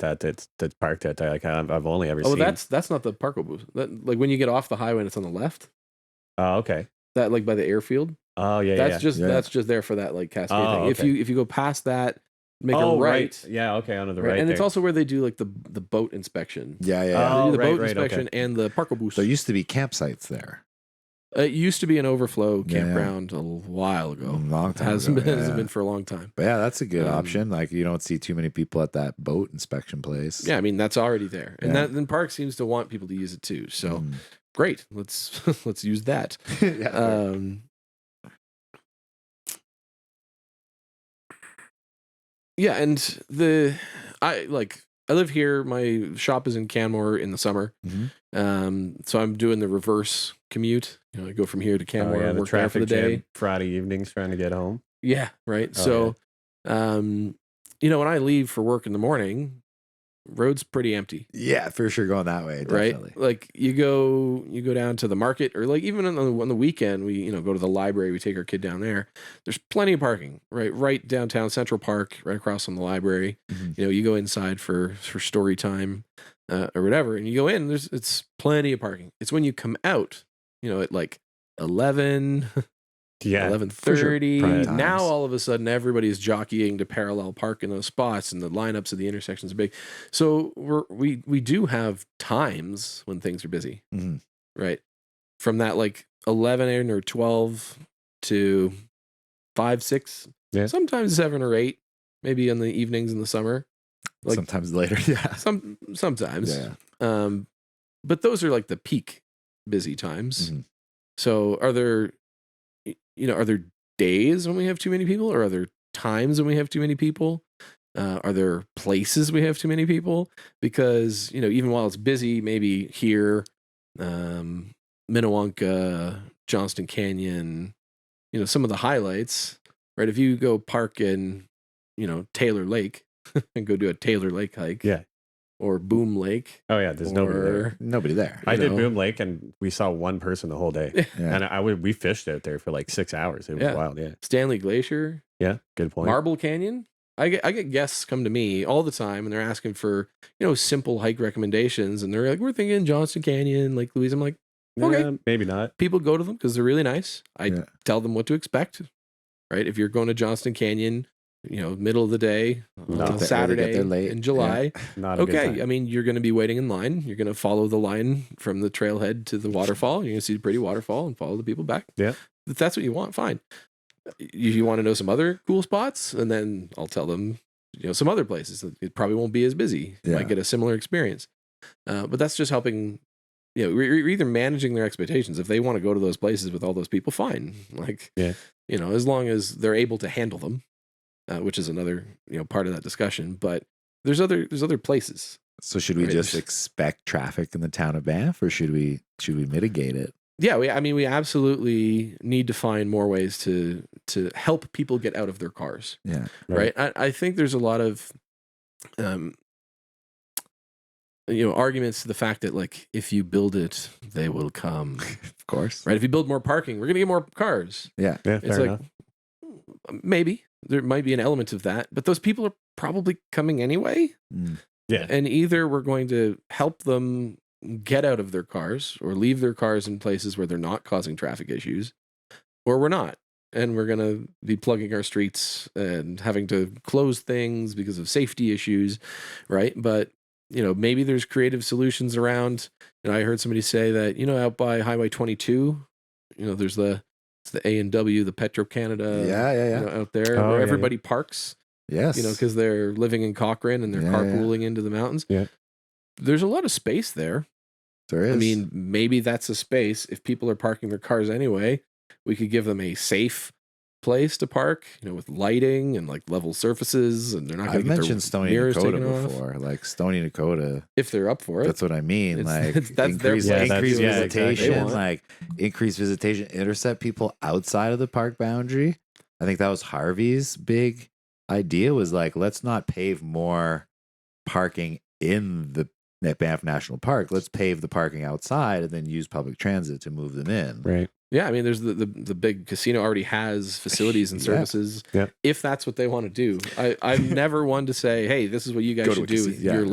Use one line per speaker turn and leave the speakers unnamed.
that that's that's parked out there. Like I've, I've only ever
Oh,
seen.
that's that's not the Parko booth. That, like when you get off the highway and it's on the left,
oh okay.
that like by the airfield.
Oh yeah,
that's
yeah,
just
yeah.
that's just there for that like cascade
Oh,
thing. If
okay.
you if you go past that, make
oh
a right,
Yeah, okay, onto the
right,
right.
and it's
there.
also where they do like the the boat inspection.
Yeah, yeah. yeah.
Oh,
they do the
right,
boat
right, okay.
inspection and the Parko booth.
there used to be campsites there.
it used to be an overflow
Yeah, yeah.
campground a while
A
Mm,
ago.
long
It
time
Oh, hasn't
ago.
been
yeah.
hasn't been for a long time.
But yeah, that's a good
Um,
option. Like you don't see too many people at that boat inspection place.
Yeah, I mean that's already there, and
Yeah.
that then Park seems to want people to use it too. So
Mm.
great, let's let's use that.
yeah.
Um, yeah, and the I like I live here. My shop is in Canmore in the summer,
Mhm.
Mm-hmm.
um, so I'm doing the reverse commute. You know, I go from here to
Oh,
Canmore
yeah,
and
the
work there for
traffic
the day.
jam Friday evenings trying to get home.
Yeah, right.
Oh,
so, um, you know, when I leave for work in the morning, road's pretty empty.
yeah, for sure going that way. Definitely.
Right, like you go, you go down to the market, or like even on the on the weekend, we you know go to the library. We take our kid down there. There's plenty of parking, right, right downtown Central Park, right across from the library.
Mhm.
You know, you go inside for for story time, uh, or whatever, and you go in. There's it's plenty of parking. It's when you come out, you know, at like eleven,
Yeah,
eleven
sure.
thirty.
Prime
Now
times.
all of a sudden everybody's jockeying to parallel park in those spots, and the lineups at the intersections are big. So we're, we we do have times when things are busy,
Mhm.
right? From that like eleven in or twelve to five six,
Yeah.
sometimes seven or eight, maybe in the evenings in the summer. Like-
Sometimes later. Yeah.
Some sometimes,
Yeah.
um, but those are like the peak busy times.
Mhm.
So are there, y- you know, are there days when we have too many people, or are there times when we have too many people? Uh, are there places we have too many people? Because you know, even while it's busy, maybe here, um, Minnewanka, Johnston Canyon, you know, some of the highlights. Right, if you go park in, you know, Taylor Lake and go do a Taylor Lake hike,
Yeah.
or Boom Lake,
Oh yeah, there's nobody there.
or-
Nobody there.
I
you
did
know.
Boom Lake, and we saw one person the whole day,
Yeah.
and I, I would we fished out there for like six hours. It was
Yeah.
wild. Yeah,
Stanley Glacier,
yeah, good point.
Marble Canyon. I get I get guests come to me all the time and they're asking for, you know, simple hike recommendations and they're like, We're thinking Johnston Canyon, Lake Louise. I'm like, okay.
Yeah, maybe not.
people go to them because they're really nice. I
Yeah.
tell them what to expect. Right. If you're going to Johnston Canyon, you know, middle of the day,
No.
on
Get there early,
get
Saturday
there late.
in July.
Not a Good
Okay.
time.
I mean, you're gonna be waiting in line. You're gonna follow the line from the trailhead to the waterfall. You're gonna see the pretty waterfall and follow the people back.
Yeah.
If that's what you want, fine. If you want to know some other cool spots, and then I'll tell them, you know, some other places that it probably won't be as busy. You
Yeah.
Might get a similar experience. Uh, but that's just helping you know, we're, we're either managing their expectations. If they want to go to those places with all those people, fine. Like,
Yeah.
you know, as long as they're able to handle them, uh, which is another, you know, part of that discussion. But there's other, there's other places.
So should we
Right.
just expect traffic in the town of Banff, or should we should we mitigate it?
Yeah. We, I mean, we absolutely need to find more ways to, to help people get out of their cars.
Yeah.
right?
Right.
I, I think there's a lot of, um, you know, arguments to the fact that like if you build it, they will come.
Of course.
Right? If you build more parking, we're gonna get more cars.
Yeah, fair
it's like
enough.
maybe there might be an element of that, but those people are probably coming anyway.
Mm.
Yeah.
And either we're going to help them get out of their cars or leave their cars in places where they're not causing traffic issues, or we're not. And we're going to be plugging our streets and having to close things because of safety issues, right? But, you know, maybe there's creative solutions around. And I heard somebody say that, you know, out by Highway 22, you know, there's the, it's the A and W, the Petro Canada,
yeah, yeah, yeah.
Uh, you know, out there
Oh,
where
yeah, yeah.
everybody parks,
yes.
you know, because they're living in Cochrane and they're
Yeah, yeah.
carpooling into the mountains.
Yeah.
There's a lot of space there.
there is.
I mean, maybe that's a space. If people are parking their cars anyway, we could give them a safe place to park, you know, with lighting and like level surfaces and they're not going
I've
to get their
mentioned Stony
mirrors
Dakota
taken off.
before. Like Stony Dakota.
if they're up for it.
That's what I mean.
It's-
like
it's- that's their
increase,
place. Yeah,
increase
that's- yeah, exactly.
visitation,
They want.
like increase visitation, intercept people outside of the park boundary. I think that was Harvey's big idea was like, let's not pave more parking in the Na- Banff National Park. Let's pave the parking outside and then use public transit to move them in.
Right.
Yeah, I mean, there's the, the the big casino already has facilities and
Yeah.
services.
Yeah.
If that's what they want to do, I I'm never one to say, hey, this is what you guys
Go to
should
a
do with
casino. Yeah.
your